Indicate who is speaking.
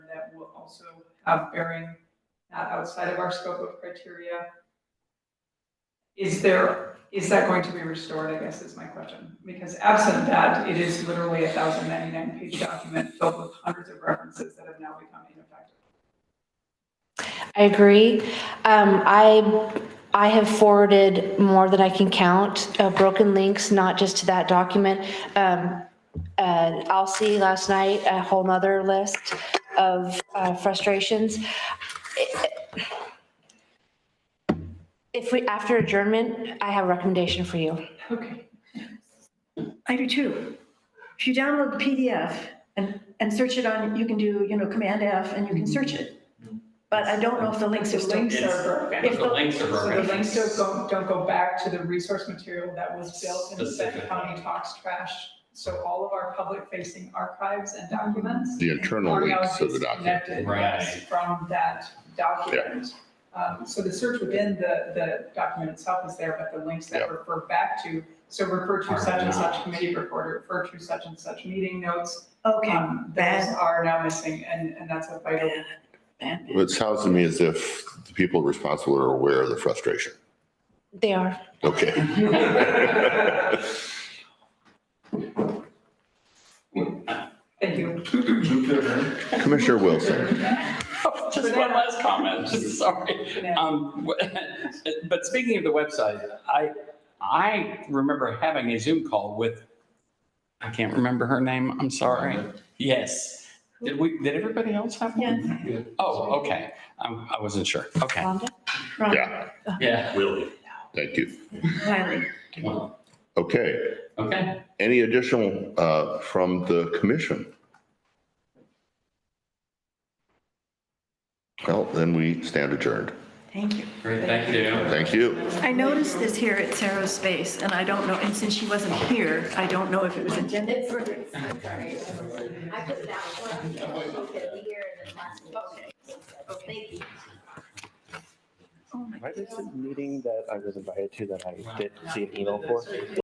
Speaker 1: also have bearing not outside of our scope of criteria. Is there, is that going to be restored, I guess is my question, because absent that, it is literally a thousand ninety-nine page document filled with hundreds of references that have now become ineffective.
Speaker 2: I agree. Um, I, I have forwarded more than I can count, uh, broken links, not just to that document. Um, uh, Alcee last night, a whole nother list of uh, frustrations. If we, after adjournment, I have a recommendation for you.
Speaker 1: Okay.
Speaker 3: I do too. If you download the PDF and, and search it on, you can do, you know, Command F and you can search it. But I don't know if the links are
Speaker 1: The
Speaker 3: still.
Speaker 1: links are broken.
Speaker 3: If
Speaker 4: The links are
Speaker 1: So the
Speaker 4: broken.
Speaker 1: links don't go, don't go back to the resource material that was built in the
Speaker 4: Specifically.
Speaker 1: County Talks Trash. So all of our public facing archives and documents.
Speaker 5: The internal
Speaker 1: are now
Speaker 5: links to the document.
Speaker 1: disconnected,
Speaker 4: Right.
Speaker 1: yes, From that document. Um, so the search within the, the document itself is there, but the links that
Speaker 5: Yep.
Speaker 1: refer back to, so refer to
Speaker 4: Are
Speaker 1: such and such
Speaker 4: not.
Speaker 1: committee report, refer to such and such meeting notes.
Speaker 3: Okay,
Speaker 1: um, Those
Speaker 3: bad.
Speaker 1: are now missing and, and that's a vital
Speaker 3: bad.
Speaker 5: It sounds to me as if the people responsible are aware of the frustration.
Speaker 2: They are.
Speaker 5: Okay.
Speaker 1: Thank you.
Speaker 5: Commissioner Wilson,
Speaker 4: Just one last comment, just sorry. Um, w- But speaking of the website, I, I remember having a Zoom call with, I can't remember her name, I'm sorry. Yes. Did we, did everybody else have one?
Speaker 3: Yes,
Speaker 4: Oh, okay. Um, I wasn't sure. Okay.
Speaker 2: Rhonda?
Speaker 3: right,
Speaker 5: yeah,
Speaker 4: Yeah.
Speaker 6: Willie.
Speaker 5: thank you.
Speaker 3: Riley.
Speaker 5: Okay,
Speaker 4: Okay.
Speaker 5: any additional uh, from the commission? Well, then we stand adjourned.
Speaker 3: Thank you.
Speaker 4: Great, thank you.
Speaker 5: Thank you.
Speaker 3: I noticed this here at Sarah's space and I don't know, and since she wasn't here, I don't know if it was intended.
Speaker 7: It's, I'm sorry. I put that one, okay, the year and then last. Okay. Thank you.
Speaker 3: Oh my
Speaker 8: Why is the meeting that I was invited to that I did see an email for?